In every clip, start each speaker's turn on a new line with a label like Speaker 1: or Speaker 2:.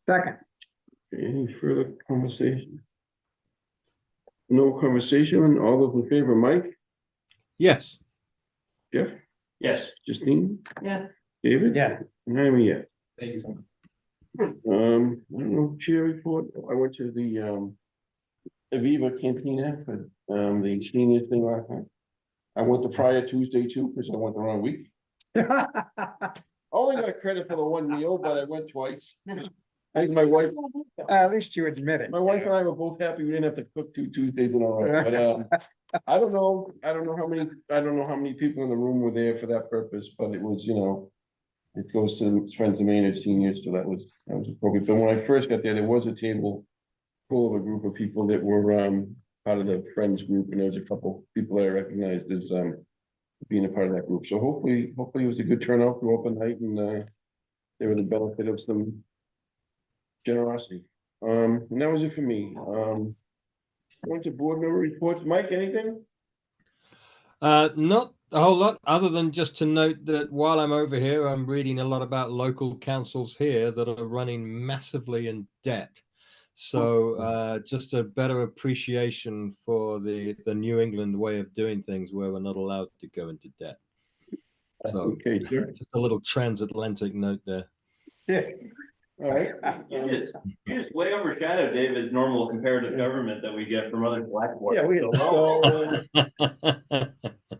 Speaker 1: Second,
Speaker 2: Any further conversation? No conversation, all those in favor, Mike,
Speaker 3: Yes.
Speaker 2: Jeff,
Speaker 4: Yes.
Speaker 2: Justine,
Speaker 5: Yeah.
Speaker 2: David?
Speaker 4: Yeah.
Speaker 2: And I'm a yes.
Speaker 4: Thank you so much.
Speaker 2: Um, I don't know, chair report, I went to the um. Aviva Cantina for um the senior thing last night. I went the prior Tuesday too, because I went the wrong week. I Only got credit for the one meal, but I went twice. I think my wife,
Speaker 1: at least you admit it.
Speaker 2: my wife and I were both happy we didn't have to cook two Tuesdays in a row, but um. I don't know, I don't know how many, I don't know how many people in the room were there for that purpose, but it was, you know. It goes to friends of mine and seniors, so that was, that was appropriate, but when I first got there, there was a table. Full of a group of people that were um part of the friends group, and there was a couple people that I recognized as um. Being a part of that group, so hopefully, hopefully it was a good turnout for open night and uh. There was the benefit of some. Generosity, um, and that was it for me, um. Going to board member reports, Mike, anything?
Speaker 3: Uh, not a whole lot, other than just to note that while I'm over here, I'm reading a lot about local councils here that are running massively in debt. So
Speaker 1: Hmm.
Speaker 3: uh, just a better appreciation for the the New England way of doing things, where we're not allowed to go into debt. So
Speaker 2: Okay, sure,
Speaker 3: just a little transatlantic note there.
Speaker 2: all right. Um,
Speaker 4: You just, you just way overshadow David's normal comparative government that we get from other black boards.
Speaker 1: Yeah, we had a
Speaker 2: So, uh, all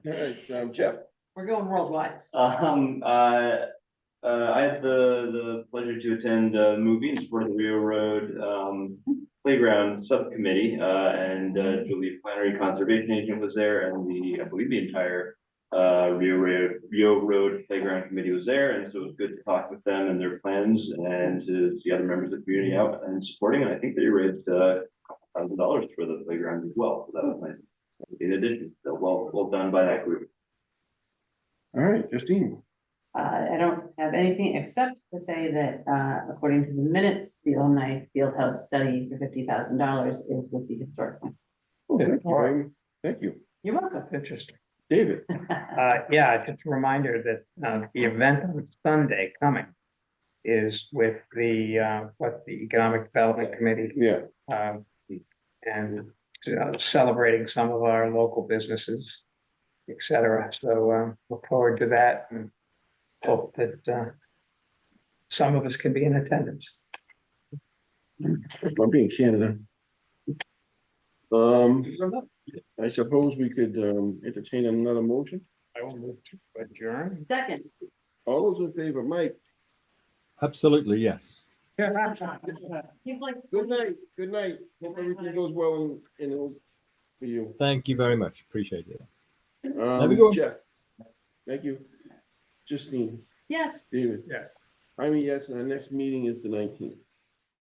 Speaker 2: right, um, Jeff,
Speaker 5: We're going worldwide.
Speaker 4: Um, uh, uh, I had the, the pleasure to attend a movie in support of the Rio Road, um, Playground Subcommittee, uh, and uh, Julie Flannery Conservation Agent was there, and the, I believe the entire uh, Rio Road, Rio Road Playground Committee was there, and so it was good to talk with them and their plans and to see other members of the community out and supporting, and I think they raised, uh, thousand dollars for the playground as well, so that was nice. So In addition, so well, well done by that group.
Speaker 2: all right, Justine,
Speaker 5: Uh, I don't have anything except to say that, uh, according to the minutes, the alumni field house study for fifty thousand dollars is with the historic.
Speaker 2: Oh, that's fine. thank you,
Speaker 5: You're welcome.
Speaker 1: Interesting.
Speaker 2: David,
Speaker 1: Uh, yeah, just a reminder that, uh, the event on Sunday coming is with the, uh, what the Economic Development Committee,
Speaker 2: yeah,
Speaker 1: um, and uh, celebrating some of our local businesses, et cetera. So, um, look forward to that and hope that, uh, some of us can be in attendance.
Speaker 2: I'll be in Canada. Um, I suppose we could um entertain another motion,
Speaker 1: I will move to adjourn.
Speaker 5: Second.
Speaker 2: all those in favor, Mike,
Speaker 3: Absolutely, yes.
Speaker 5: He's like.
Speaker 2: good night, good night, hope everything goes well and it'll for you.
Speaker 3: Thank you very much. Appreciate it. we
Speaker 2: Um,
Speaker 3: go.
Speaker 2: Jeff, thank you, Justine,
Speaker 5: Yes.
Speaker 2: David.
Speaker 1: Yes.
Speaker 2: I mean, yes, and our next meeting is the nineteenth.